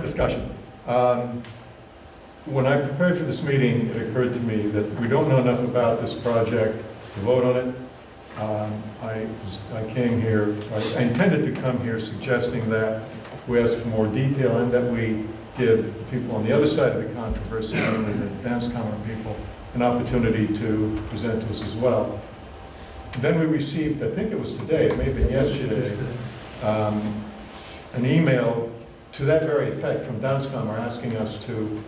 discussion. Um, When I prepared for this meeting, it occurred to me that we don't know enough about this project to vote on it. Um, I was- I came here, I intended to come here suggesting that we ask for more detail and that we give people on the other side of the controversy, namely the dance common people, an opportunity to present to us as well. Then we received, I think it was today, it may have been yesterday, um, an email to that very effect from Danscom are asking us to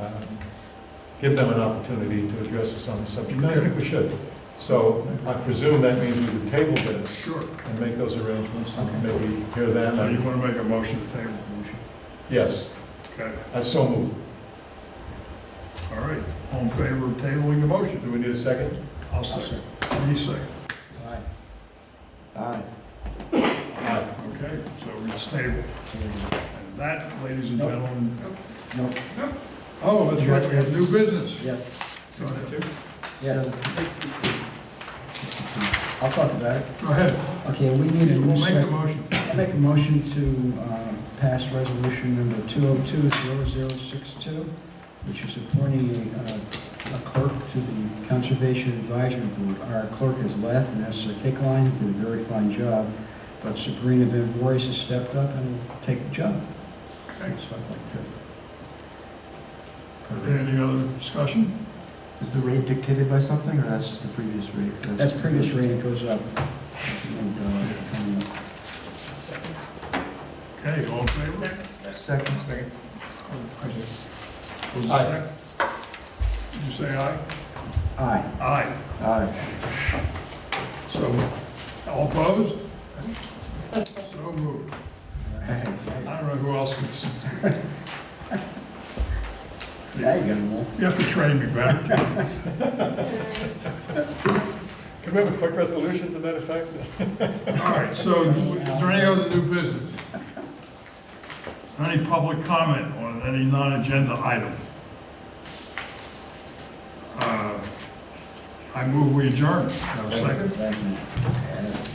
um, give them an opportunity to address us on the subject. And I think we should. So I presume that means we would table this Sure. and make those arrangements and Okay. maybe hear them. So you and- want to make a motion to table the motion? Yes, Okay, I so moved. all right. All in favor of tabling the motion? Do we need a second? I'll second. Any second. Aye. Aye. Aye. Okay, so it's tabled. And that, ladies and gentlemen, No, oh, that's right, we have new business. yes, Go ahead. yeah. I'll talk about it. Go ahead. Okay, we need a new We'll make the second. motion. I'll make a motion to uh, pass resolution number 202-0062, which is appointing a uh, a clerk to the Conservation Advisory Board. Our clerk has left, and that's Sir Kickline, who did a very fine job, but Sabrina Van Voorhis has stepped up and will take the job. Okay. That's what I'd like to. Any other discussion? Is the rate dictated by something, or that's just the previous rate? That's previous rate, it goes up. And, uh, and, uh, Okay, all in favor? Second. Second. Was it Aye. second? Did you say aye? Aye. Aye. Aye. So, all opposed? So moved. I don't know who else can. s- Now you got them all. You have to train me better. Can we have a quick resolution to that effect? All right, so is there any other new business? Any public comment on any non-agenda item? Uh, I move we adjourn. Have a second? Second. Yes.